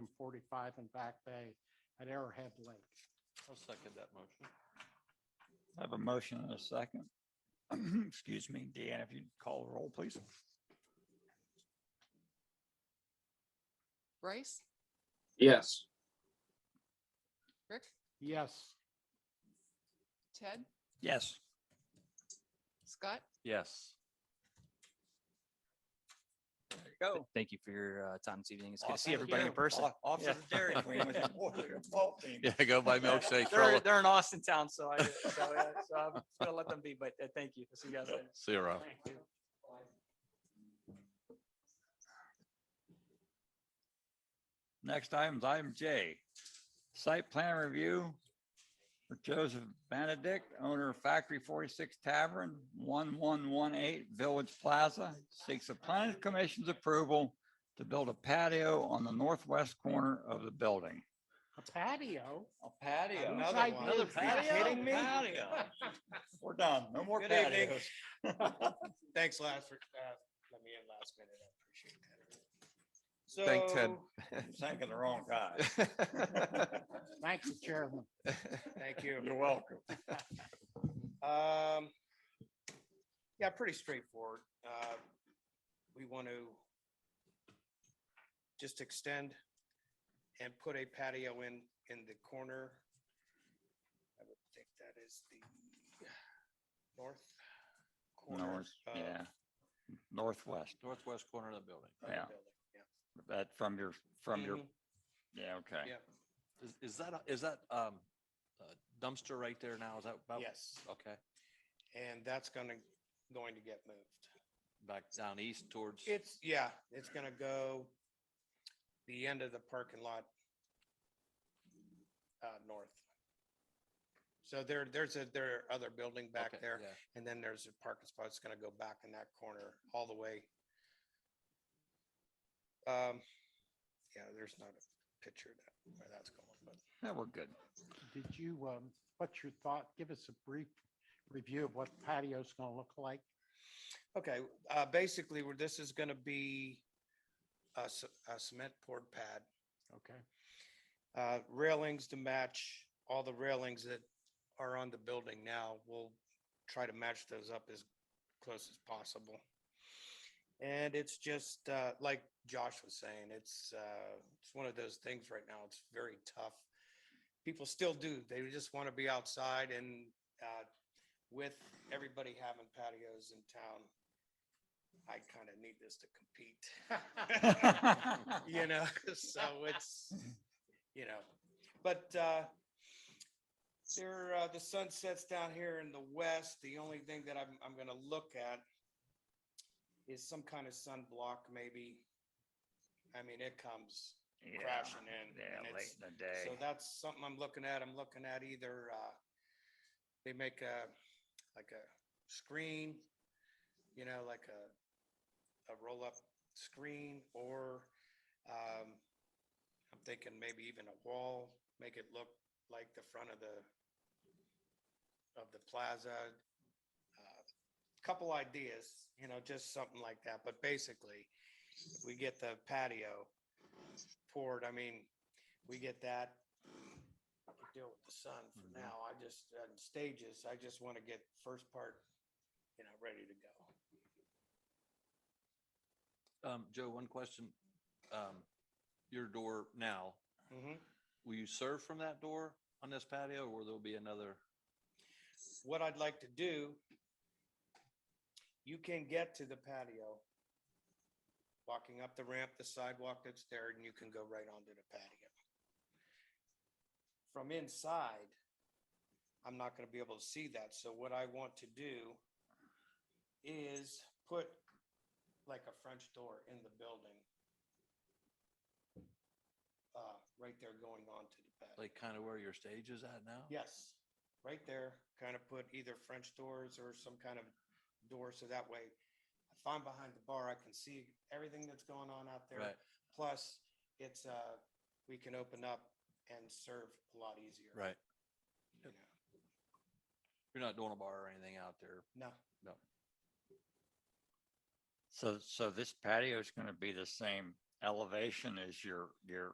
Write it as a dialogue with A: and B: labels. A: five and Back Bay at Arrowhead Lake.
B: I'll second that motion.
C: I have a motion and a second. Excuse me, Deanna, if you'd call the roll, please.
D: Bryce,
E: Yes.
D: Rick,
A: Yes,
D: Ted,
C: Yes,
D: Scott,
B: Yes.
C: go.
F: Thank you for your uh, time this evening. It's good to
C: Awesome.
F: see everybody in
C: Yeah.
F: person.
C: Off- Off to the Dairy Queen with your boy, your ball team.
B: Yeah, go buy milkshake.
F: They're, they're in Austin town, so I, so uh, so I'm just gonna let them be, but uh, thank you. See you guys later.
B: Zero.
C: Next item is item J, site plan review for Joseph Benedict, owner of Factory 46 Tavern, 1118 Village Plaza, seeks the planning commission's approval to build a patio on the northwest corner of the building.
A: a patio.
C: A patio.
A: Whose idea
C: Another
A: is that?
C: patio? Patio. We're done. No more
E: Good evening.
C: patios.
E: Thanks, Laz, for, uh, let me in last minute. I appreciate that. So.
B: Thank Ted.
C: Thinking the wrong guy.
A: Thank you, Chairman.
E: Thank you.
C: You're welcome.
E: Um, yeah, pretty straightforward. Uh, we want to just extend and put a patio in, in the corner. I would think that is the north corner.
C: North,
E: of
C: yeah. Northwest,
B: Northwest corner of the building.
E: of the
C: yeah.
E: building.
C: that from your, from your,
E: Mhm,
C: yeah, okay.
E: Yeah,
B: Is, is that, a- is that, um, a dumpster right there now? Is that about?
E: yes.
B: Okay,
E: And that's gonna, going to get moved.
B: back down east towards,
E: It's, yeah, it's gonna go the end of the parking lot uh, north. So there, there's a, there are other building back
B: Okay,
E: there,
B: yeah.
E: and then there's a parking spot. It's gonna go back in that corner all the way. Um, yeah, there's not a picture of that, where that's going, but
C: Yeah, we're good.
A: Did you, um, what's your thought? Give us a brief review of what the patio's gonna look like.
E: Okay, uh, basically, where this is gonna be a c- a cement poured pad.
A: Okay.
E: uh, railings to match all the railings that are on the building now. We'll try to match those up as close as possible. And it's just, uh, like Josh was saying, it's, uh, it's one of those things right now. It's very tough. People still do. They just want to be outside and, uh, with everybody having patios in town, I kind of need this to compete. You know, so it's, you know, but uh there, uh, the sun sets down here in the west. The only thing that I'm, I'm gonna look at is some kind of sunblock maybe. I mean, it comes
C: Yeah,
E: crashing in. and
C: Yeah, late
E: it's-
C: in the day.
E: So that's something I'm looking at. I'm looking at either, uh, they make a, like a screen, you know, like a, a roll-up screen or, um, I'm thinking maybe even a wall, make it look like the front of the, of the plaza. Uh, Couple ideas, you know, just something like that. But basically, if we get the patio poured, I mean, we get that. I could deal with the sun for
B: Mhm.
E: now. I just, uh, stages, I just want to get first part, you know, ready to go.
B: um, Joe, one question. Um, your door now,
E: Mhm.
B: will you serve from that door on this patio or there'll be another?
E: What I'd like to do, you can get to the patio, walking up the ramp, the sidewalk that's there, and you can go right onto the patio. From inside, I'm not going to be able to see that. So what I want to do is put like a French door in the building. Uh, right there going onto the patio.
B: Like kind of where your stage is at now?
E: Yes, right there, kind of put either French doors or some kind of door, so that way if I'm behind the bar, I can see everything that's going on out there.
B: Right.
E: Plus, it's, uh, we can open up and serve a lot easier.
B: Right.
E: you
B: Yep. You're not doing a bar or anything out there.
E: know. No,
C: So, so this patio is going to be the same elevation as your, your